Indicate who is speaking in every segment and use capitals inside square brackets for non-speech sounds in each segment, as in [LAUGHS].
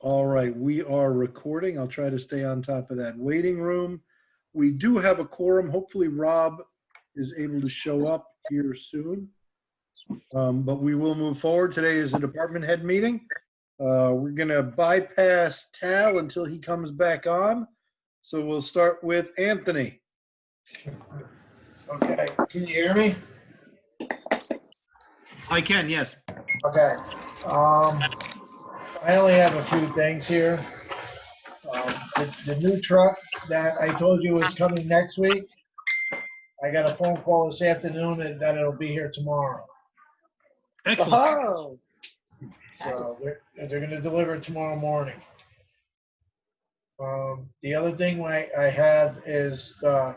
Speaker 1: All right, we are recording. I'll try to stay on top of that waiting room. We do have a quorum. Hopefully Rob is able to show up here soon. Um, But we will move forward. Today is a department head meeting. Uh, We're going to bypass Tal until he comes back on. So we'll start with Anthony.
Speaker 2: Okay, can you hear me?
Speaker 3: I can, yes.
Speaker 2: Okay. Um, I only have a few things here. Um, The, the new truck that I told you was coming next week, I got a phone call this afternoon and that it'll be here tomorrow.
Speaker 3: Excellent.
Speaker 4: Oh,
Speaker 2: So they're, they're gonna deliver it tomorrow morning. Um, the other thing I, I have is, uh,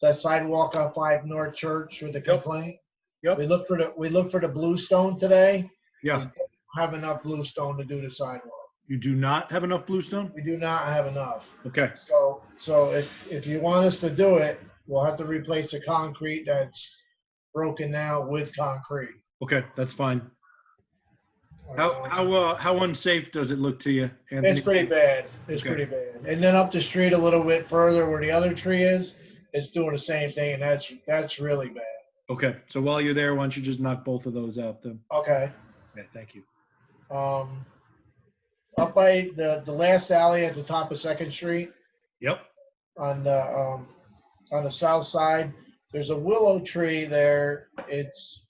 Speaker 2: that sidewalk on Five North Church with the complaint.
Speaker 1: Yep.
Speaker 2: We looked for the, we looked for the blue stone today.
Speaker 1: Yeah,
Speaker 2: have enough blue stone to do the sidewalk.
Speaker 1: [LAUGHS] you do not have enough bluestone?
Speaker 2: We do not have enough.
Speaker 1: Okay,
Speaker 2: So, so if, if you want us to do it, we'll have to replace the concrete that's broken now with concrete.
Speaker 1: okay, that's fine. How,
Speaker 2: Um,
Speaker 1: how, uh, how unsafe does it look to you, Anthony?
Speaker 2: It's pretty bad. It's
Speaker 1: Okay.
Speaker 2: pretty bad. And then up the street a little bit further where the other tree is, it's doing the same thing and that's, that's really bad.
Speaker 1: Okay, so while you're there, why don't you just knock both of those out then?
Speaker 2: Okay.
Speaker 1: Okay, thank you.
Speaker 2: Um, up by the, the last alley at the top of Second Street,
Speaker 1: Yep.
Speaker 2: on the um, on the south side. There's a willow tree there. It's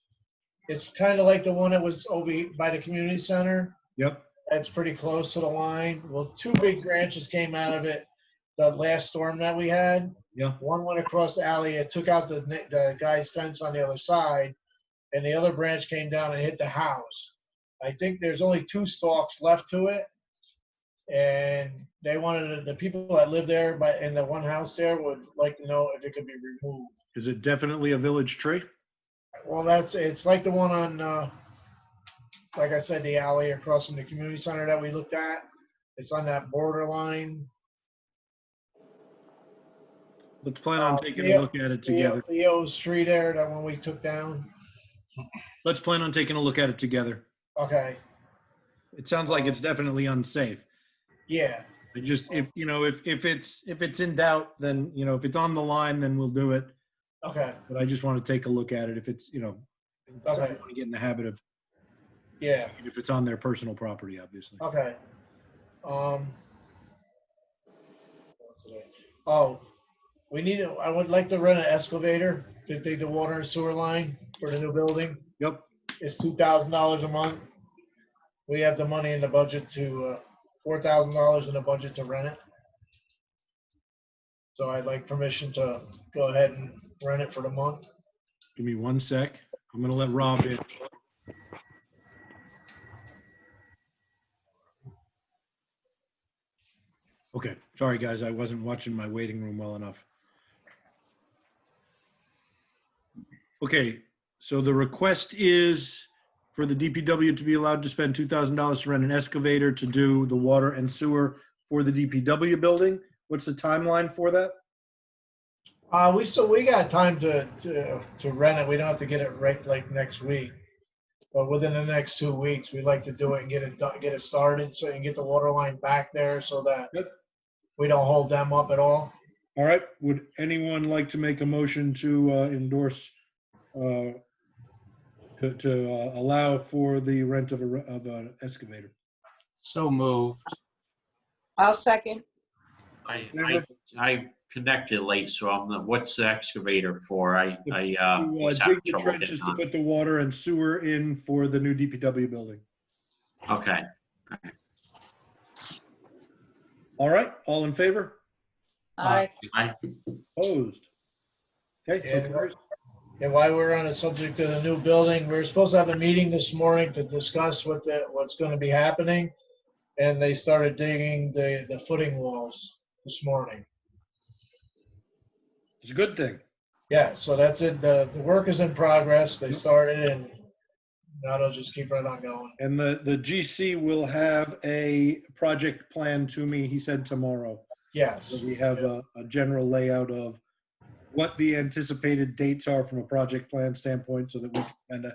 Speaker 2: it's kind of like the one that was over by the community center.
Speaker 1: Yep.
Speaker 2: That's pretty close to the line. Well, two big branches came out of it. The last storm that we had.
Speaker 1: Yeah.
Speaker 2: One went across the alley. It took out the ne- the guy's fence on the other side, and the other branch came down and hit the house. I think there's only two stalks left to it and they wanted, the people that live there, but in the one house there would like to know if it could be removed.
Speaker 1: Is it definitely a village tree?
Speaker 2: Well, that's, it's like the one on, uh, like I said, the alley across from the community center that we looked at. It's on that borderline.
Speaker 1: Let's plan on
Speaker 2: Uh,
Speaker 1: taking a
Speaker 2: yeah,
Speaker 1: look at it
Speaker 2: Theo-
Speaker 1: together.
Speaker 2: Theo's tree there, that one we took down.
Speaker 1: Let's plan on taking a look at it together.
Speaker 2: Okay,
Speaker 1: It sounds like it's definitely unsafe.
Speaker 2: yeah,
Speaker 1: It just, if, you know, if, if it's, if it's in doubt, then, you know, if it's on the line, then we'll do it.
Speaker 2: okay,
Speaker 1: But I just want to take a look at it if it's, you know, I
Speaker 2: Okay.
Speaker 1: want to get in the habit of,
Speaker 2: yeah.
Speaker 1: if it's on their personal property, obviously.
Speaker 2: Okay. Um. what else did I- Oh, we need, to- I would like to rent an excavator to dig the water and sewer line for the new building.
Speaker 1: Yep.
Speaker 2: It's two thousand dollars a month. We have the money in the budget to, uh, four thousand dollars in the budget to rent it. So I'd like permission to go ahead and rent it for the month.
Speaker 1: Give me one sec. I'm going to let Rob in. Okay, sorry, guys. I wasn't watching my waiting room well enough. Okay, so the request is for the DPW to be allowed to spend $2,000 to rent an excavator to do the water and sewer for the DPW building. What's the timeline for that?
Speaker 2: Uh, we still, we got time to, to, to rent it. We don't have to get it right like next week. But within the next two weeks, we'd like to do it and get it, do- get it started so you can get the water line back there so that
Speaker 1: Yep.
Speaker 2: we don't hold them up at all.
Speaker 1: All right, would anyone like to make a motion to uh, endorse, uh, to to, uh, allow for the rent of a, re- of an excavator?
Speaker 5: So moved.
Speaker 4: I'll second.
Speaker 6: I, I, I connected late, so I'm, the- what's the excavator for? I, I, uh,
Speaker 1: To uh,
Speaker 6: was
Speaker 1: dig
Speaker 6: having
Speaker 1: the
Speaker 6: trouble
Speaker 1: trenches
Speaker 6: getting
Speaker 1: to
Speaker 6: on.
Speaker 1: put the water and sewer in for the new DPW building.
Speaker 6: Okay,
Speaker 1: All right, all in favor?
Speaker 4: I,
Speaker 6: I,
Speaker 1: Opposed? Okay, so
Speaker 2: Yeah.
Speaker 1: carries.
Speaker 2: And while we're on the subject of the new building, we were supposed to have a meeting this morning to discuss what the, what's gonna be happening. And they started digging the, the footing walls this morning.
Speaker 1: it's a good thing.
Speaker 2: Yeah, so that's it. The, the work is in progress. They started and now they'll just keep right on going.
Speaker 1: And the, the GC will have a project plan to me, he said tomorrow.
Speaker 2: Yes,
Speaker 1: So we have a, a general layout of what the anticipated dates are from a project plan standpoint so that we can kind of